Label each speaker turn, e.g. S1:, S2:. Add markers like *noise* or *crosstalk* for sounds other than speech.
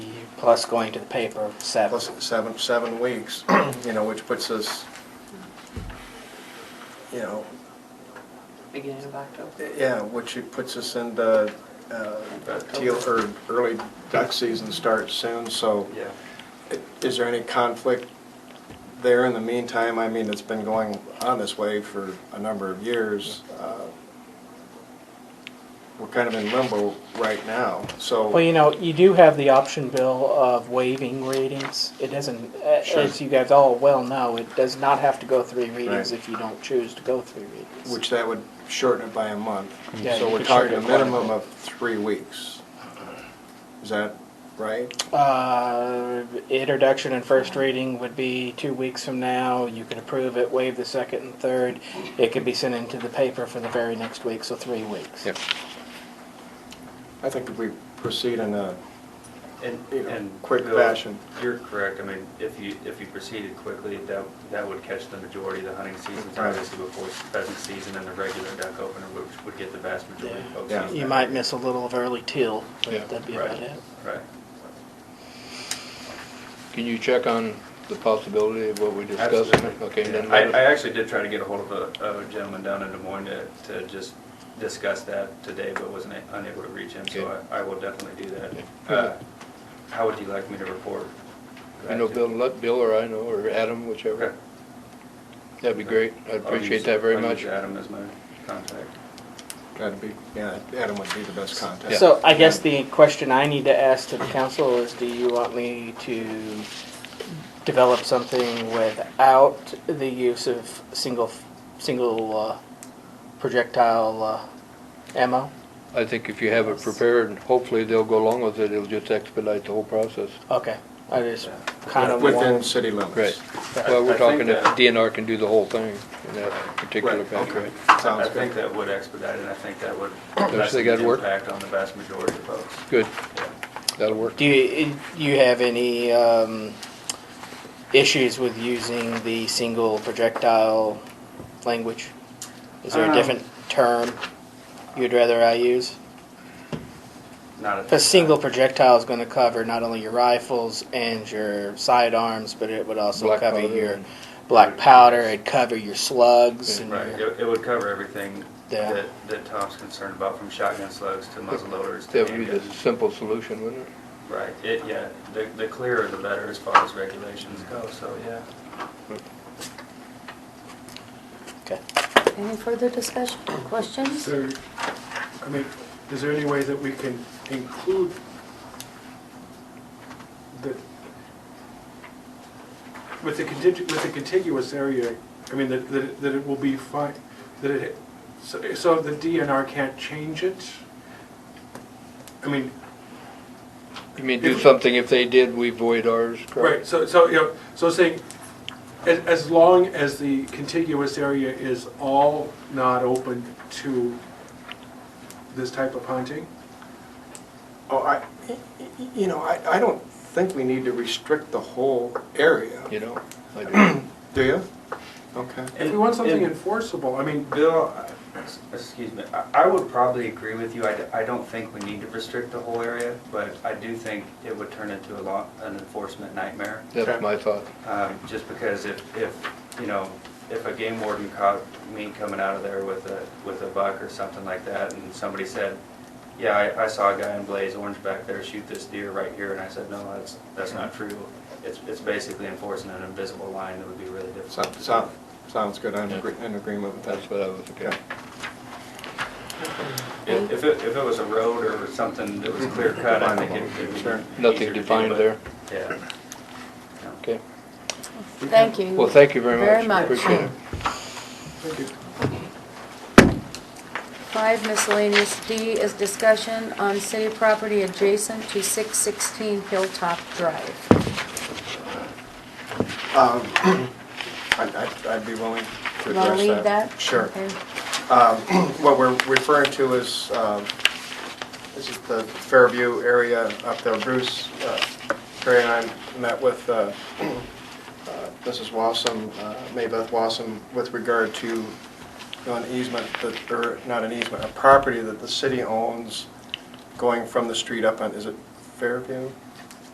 S1: plus going to the paper, seven.
S2: plus seven, seven weeks, *clears throat* you know, which puts us, you know,
S3: beginning of October.
S2: yeah, which it puts us into, uh, teal, or early duck season starts soon, so
S4: Yeah.
S2: is there any conflict there in the meantime? I mean, it's been going on this way for a number of years. Uh, We're kind of in limbo right now, so.
S1: Well, you know, you do have the option, Bill, of waiving readings. It doesn't, a-
S2: Sure.
S1: as you guys all well know, it does not have to go three readings
S2: Right.
S1: if you don't choose to go three readings.
S2: Which that would shorten it by a month.
S1: Yeah,
S2: So
S1: you
S2: we're
S1: could shorten
S2: talking a
S1: it quite a
S2: minimum
S1: bit.
S2: of three weeks. Is that right?
S1: Uh, introduction and first reading would be two weeks from now. You could approve it, waive the second and third. It could be sent into the paper for the very next week, so three weeks.
S5: Yeah.
S2: I think if we proceed in a,
S4: And,
S2: You know,
S4: and.
S2: quick
S4: Bill,
S2: fashion.
S4: You're correct, I mean, if you, if you proceeded quickly, that, that would catch the majority of the hunting seasons,
S2: Right.
S4: obviously before pheasant season and the regular duck opener, which would get the vast majority of folks.
S2: Yeah.
S4: using
S1: You
S4: that.
S1: might miss a little of early teal, but that'd be about
S4: Right.
S1: it.
S4: Right.
S5: Can you check on the possibility of what we discussed?
S4: Absolutely.
S5: Okay,
S4: Yeah.
S5: then
S4: I,
S5: let
S4: I
S5: us-
S4: actually did try to get a hold of a, of a gentleman down in Des Moines to, to just discuss that today, but wasn't a- unable to reach him, so
S5: Okay.
S4: I, I will definitely do that.
S5: Okay.
S4: Uh, How would you like me to report?
S5: you know, Bill, let Bill or I know, or Adam,
S4: Okay.
S5: whichever. That'd be great. I
S4: I'll use-
S5: appreciate that very
S4: I'll use
S5: much.
S4: Adam as my contact.
S2: that'd be, yeah, Adam would be the best contact.
S1: So I guess the question I need to ask to the council is, do you want me to develop something without the use of single, single uh, projectile uh, ammo?
S5: I think if you have it prepared, and hopefully they'll go along with it, it'll just expedite the whole process.
S1: Okay, I just kind of
S2: Within
S1: want,
S2: city limits.
S5: Great.
S4: I-
S5: Well,
S4: I
S5: we're
S4: think
S5: talking if
S4: that-
S5: DNR can do the whole thing in that particular
S2: Right,
S5: package.
S2: okay.
S5: right?
S2: Sounds
S4: I think
S2: good.
S4: that would expedite it, I think that would
S5: Don't you
S4: lessen
S5: think that'd
S4: the
S5: work?
S4: impact on the vast majority of folks.
S5: Good,
S4: Yeah.
S5: that'll work.
S1: do you, you have any um, issues with using the single projectile language? Is there a
S4: Um,
S1: different term you'd rather I use?
S4: Not at
S1: A
S4: this
S1: single
S4: time.
S1: projectile is going to cover not only your rifles and your sidearms, but it would also
S5: Black
S1: cover
S5: powder
S1: your
S5: and-
S1: black powder. It'd cover your slugs. And
S4: Right,
S1: your,
S4: it, it would cover everything
S1: Yeah.
S4: that, that Tom's concerned about, from shotgun slugs to muzzle loaders to
S5: That would be the
S4: handguns.
S5: simple solution, wouldn't it?
S4: Right, it, yeah, the, the clearer the better as far as regulations go, so, yeah.
S1: okay.
S6: Any further discussion, questions?
S7: So, I mean, is there any way that we can include the, with the contig, with the contiguous area, I mean, that, that it- that it will be fine, that it, so so the DNR can't change it? I mean,
S5: You mean do something, if they did, we void ours,
S7: right,
S5: correct?
S7: so, so, you know, so saying, as, as long as the contiguous area is all not open to this type of hunting?
S2: Oh, I, y- y- you know, I, I don't think we need to restrict the whole area.
S5: You know? I
S4: *clears throat*
S5: do.
S2: Do you? Okay.
S7: If we want something enforceable, I mean,
S4: Bill, I- s- excuse me, I- I would probably agree with you. I d- I don't think we need to restrict the whole area, but I do think it would turn into a law, an enforcement nightmare.
S2: Okay.
S5: That's my thought.
S4: Um, Just because if, if, you know, if a game warden caught me coming out of there with a, with a buck or something like that, and somebody said, yeah, I, I saw a guy in Blaze Orange back there shoot this deer right here, and I said, no, that's, that's not true. It's, it's basically enforcing an invisible line that would be really
S2: So,
S4: difficult.
S2: so, sounds good, I'm agree- in agreement with that.
S5: That's what I was, okay.
S4: If, if it, if it was a road or something that was clear cut, I think it could be.
S2: Sure.
S4: easier
S5: Nothing
S4: to do,
S5: defined
S4: but-
S5: there.
S4: Yeah.
S5: Okay.
S6: Thank you.
S5: Well, thank you very much.
S6: Very much.
S5: Appreciate it.
S7: thank you.
S6: Five miscellaneous D is discussion on city property adjacent to 616 Hilltop Drive.
S2: Um, I'd, I'd- I'd be willing to address that.
S6: Want to leave that?
S2: Sure.
S6: Okay.
S2: Um, What we're referring to is, um, this is the Fairview area up there. Bruce, uh, Perry and I met with uh, uh, Mrs. Wassam, uh, Maybeth Wassam, with regard to you know, an easement, that- or not an easement, a property that the city owns going from the street up on, is it Fairview?